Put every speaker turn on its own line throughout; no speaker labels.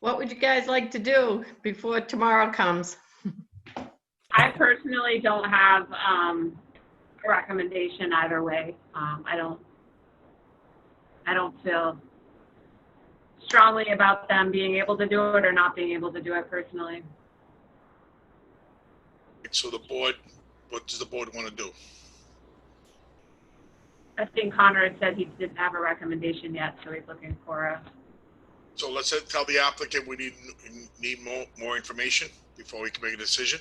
What would you guys like to do before tomorrow comes?
I personally don't have, um, a recommendation either way. Um, I don't, I don't feel strongly about them being able to do it or not being able to do it personally.
So the board, what does the board want to do?
I think Conrad said he didn't have a recommendation yet, so he's looking for a,
So let's say- tell the applicant we need, need more, more information before we can make a decision.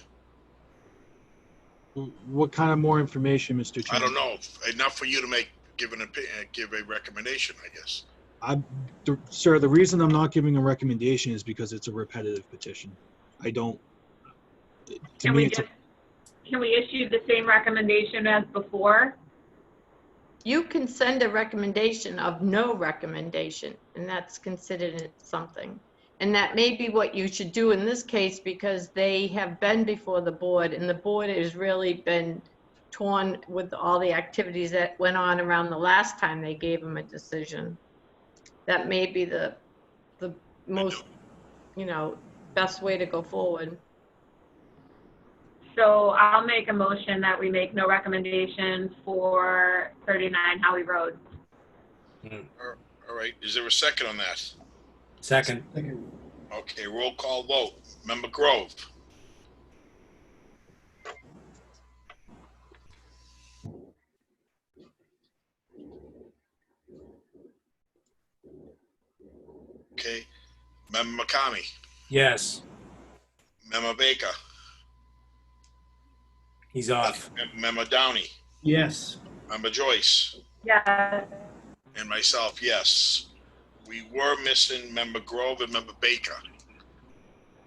What kind of more information, Mr.
I
Chairman?
don't know, enough for you to make, give an opinion, give a recommendation, I guess.
The- Sir, the reason I'm not giving a recommendation is because it's a repetitive petition. I don't. To
can
me,
we
it's,
just,
a-
can we issue the same recommendation as before?
You can send a recommendation of no recommendation, and that's considered something. And that may be what you should do in this case because they have been before the board and the board has really been torn with all the activities that went on around the last time they gave them a decision. That may be the, the most, you know, best way to go forward.
So I'll make a motion that we make no recommendation for 39 Howie Road.
All right, is there a second on that?
Second,
Okay, roll call vote. Member Grove, okay. Member McCamey,
yes,
Member Baker,
he's off.
Member Downey,
Yes.
Member Joyce.
Yes.
And myself, yes. We were missing member Grove and member Baker.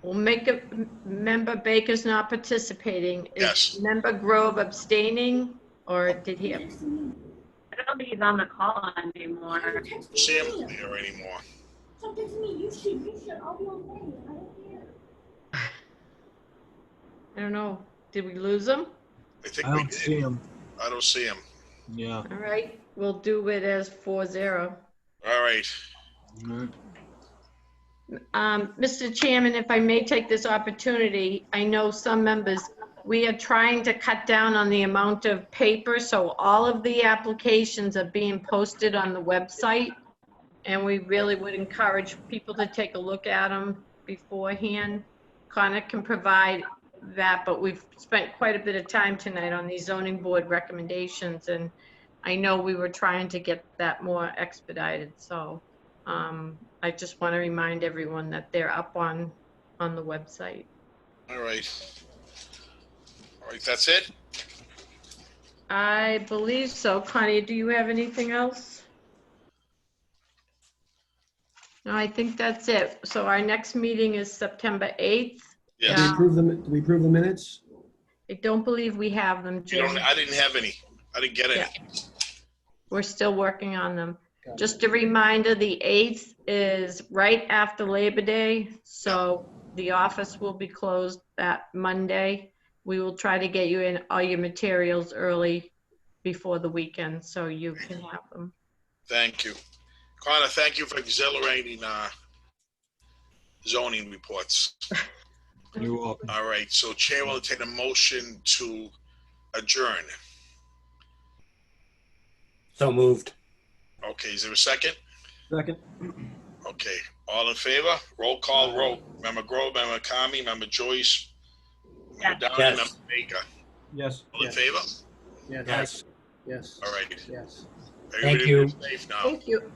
Well, make a, member Baker's not participating. Is
Yes.
Member Grove abstaining, or did he, ab-
I don't think he's on the call anymore.
Sam isn't there anymore.
Something to me, you should, you should, I'll be okay, I don't care.
I don't know, did we lose him?
I think
I
we
don't see
did.
him.
I don't see him.
Yeah.
All right, we'll do it as four zero.
All right.
all right.
Um, Mr. Chairman, if I may take this opportunity, I know some members, we are trying to cut down on the amount of paper, so all of the applications are being posted on the website. And we really would encourage people to take a look at them beforehand. Connor can provide that, but we've spent quite a bit of time tonight on these zoning board recommendations. And I know we were trying to get that more expedited, so. Um, I just want to remind everyone that they're up on, on the website.
All right. All right, that's it?
I believe so. Connie, do you have anything else? No, I think that's it. So our next meeting is September 8th.
Yes.
Do we
Yeah.
approve the, do we approve the minutes?
I don't believe we have them,
You don't,
Jim.
I didn't have any. I didn't get any.
We're still working on them. Just a reminder, the 8th is right after Labor Day, so the office will be closed that Monday. We will try to get you in all your materials early before the weekend, so you can have them.
Thank you. Connor, thank you for exhilarating, uh, zoning reports.
You're welcome.
All right, so Chair will take a motion to adjourn.
So moved.
Okay, is there a second?
Second.
Okay, all in favor? Roll call, roll. Member Grove, member Kami, member Joyce, member Downey,
Yes.
member Baker.
Yes.
All in favor?
Yes.
Yes.
Yes.
All right.
Yes.
Everybody
you.
be Safe now.
Thank you.